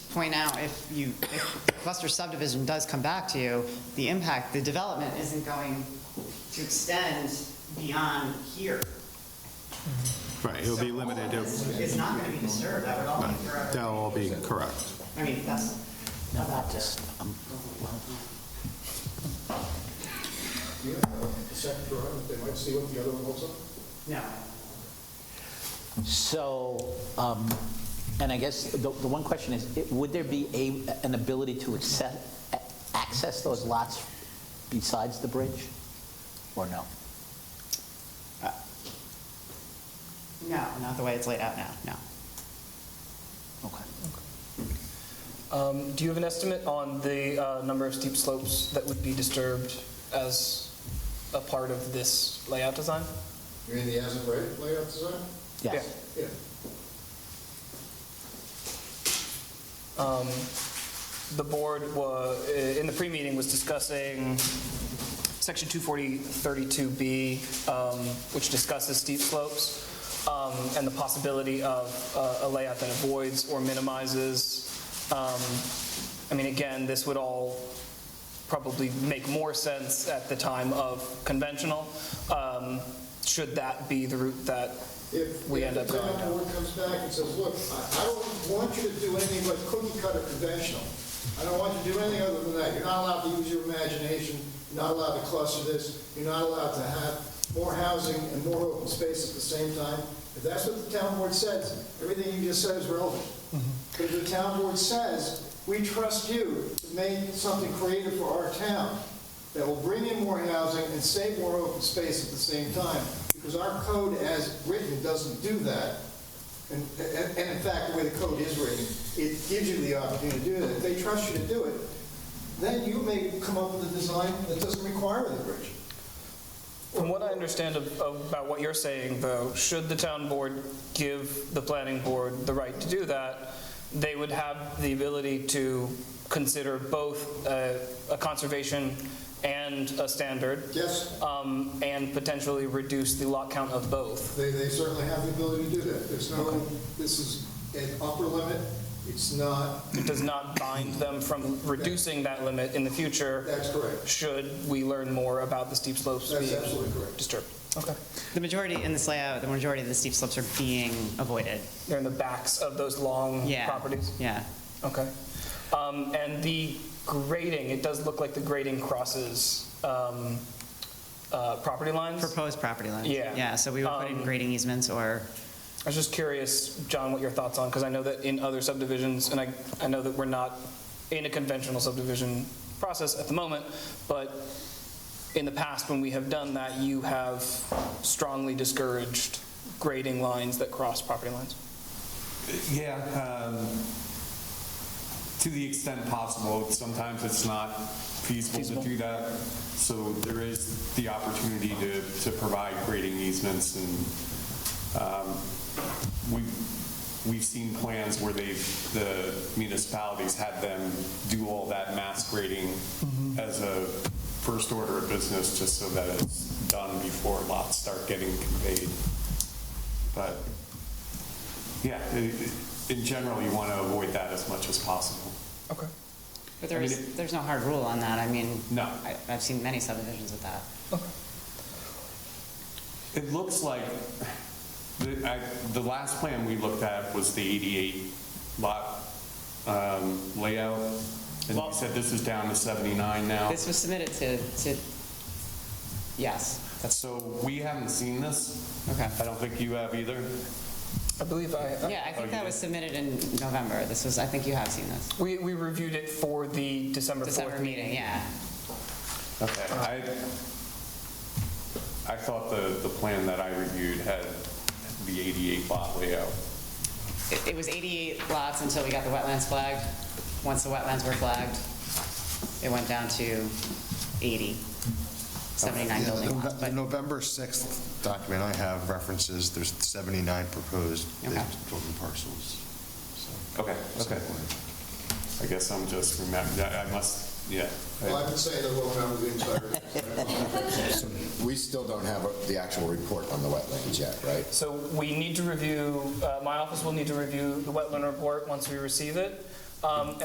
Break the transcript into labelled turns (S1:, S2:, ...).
S1: point out, if you, if cluster subdivision does come back to you, the impact, the development isn't going to extend beyond here.
S2: Right, it'll be limited,
S1: It's
S2: It'll-
S1: it's not going to be disturbed, that would all be forever.
S2: that'll all be correct.
S1: I mean, that's about this.
S3: um,
S4: Yeah, the second drawing, they might see what the other one looks like.
S1: No.
S3: So, um, and I guess the the one question is, it- would there be a, an ability to access, a- access those lots besides the bridge, or no?
S1: No, not the way it's laid out now, no.
S3: Okay.
S5: Um, Do you have an estimate on the uh, number of steep slopes that would be disturbed as a part of this layout design?
S4: You mean the as-of right layout design?
S3: Yes.
S4: Yeah.
S5: Um, The board wa, i- in the pre-meeting was discussing section 240-32B, um, which discusses steep slopes um, and the possibility of uh, a layout that avoids or minimizes. um, I mean, again, this would all probably make more sense at the time of conventional, um, should that be the route that
S4: If,
S5: We
S4: if
S5: end
S4: the
S5: up going
S4: town
S5: down.
S4: board comes back and says, look, I, I don't want you to do anything but cookie cutter conventional. I don't want you to do anything other than that. You're not allowed to use your imagination, you're not allowed to cluster this, you're not allowed to have more housing and more open space at the same time. If that's what the town board says, everything you just said is relevant. But if the town board says, we trust you to make something creative for our town, that will bring in more housing and save more open space at the same time, because our code as written doesn't do that. And, and and in fact, the way the code is written, it gives you the opportunity to do that. If they trust you to do it, then you may come up with a design that doesn't require the bridge.
S5: From what I understand of- of- about what you're saying, though, should the town board give the planning board the right to do that, they would have the ability to consider both uh, a conservation and a standard,
S4: Yes,
S5: um, and potentially reduce the lot count of both.
S4: they, they certainly have the ability to do that. There's no, this is an upper limit, it's not,
S5: It does not bind them from reducing that limit in the future,
S4: that's correct.
S5: should we learn more about the steep slopes
S4: That's
S5: being
S4: absolutely correct.
S5: disturbed. Okay.
S1: The majority in this layout, the majority of the steep slopes are being avoided.
S5: They're in the backs of those long
S1: Yeah.
S5: properties?
S1: Yeah.
S5: Okay. Um, And the grading, it does look like the grading crosses um, uh, property lines.
S1: Proposed property lines.
S5: Yeah.
S1: Yeah, so we would put in
S5: Um,
S1: grading easements or,
S5: I was just curious, John, what your thoughts on, because I know that in other subdivisions, and I, I know that we're not in a conventional subdivision process at the moment, but in the past, when we have done that, you have strongly discouraged grading lines that cross property lines.
S6: Yeah, um, to the extent possible, sometimes it's not feasible
S5: Feasible.
S6: to do that. So there is the opportunity to, to provide grading easements and, um, we've, we've seen plans where they've, the municipalities had them do all that mass grading as a first order of business, just so that it's done before lots start getting conveyed. But yeah, i- i- in general, you want to avoid that as much as possible.
S5: Okay.
S1: but there
S6: I mean,
S1: is, there's no hard rule on that. I mean,
S6: No.
S1: I- I've seen many subdivisions with that.
S6: It looks like, the, I, the last plan we looked at was the 88 lot um, layout. And you
S1: Lot-
S6: said this is down to 79 now.
S1: This was submitted to, to, yes, that's,
S6: So we haven't seen this.
S1: okay.
S6: I don't think you have either.
S5: I believe I, uh,
S1: Yeah, I
S6: Oh,
S1: think
S6: you
S1: that
S6: did?
S1: was submitted in November. This was, I think you have seen this.
S5: we, we reviewed it for the December 4th
S1: December meeting, yeah.
S6: Okay, I, I thought the, the plan that I reviewed had the 88 lot layout.
S1: It, it was 88 lots until we got the wetlands flagged. Once the wetlands were flagged, it went down to 80, 79
S7: Yeah, the
S1: building
S7: Nove-
S1: lots.
S7: The
S1: But
S7: November 6th document I have references, there's 79 proposed big
S1: Okay.
S7: building parcels. so-
S6: Okay, okay.
S7: so-
S6: I guess I'm just remembering, I must, yeah.
S4: Well, I've been saying that we'll remember the entire
S8: We still don't have the actual report on the wetlands yet, right?
S5: So we need to review, uh, my office will need to review the wetland report once we receive it. Um,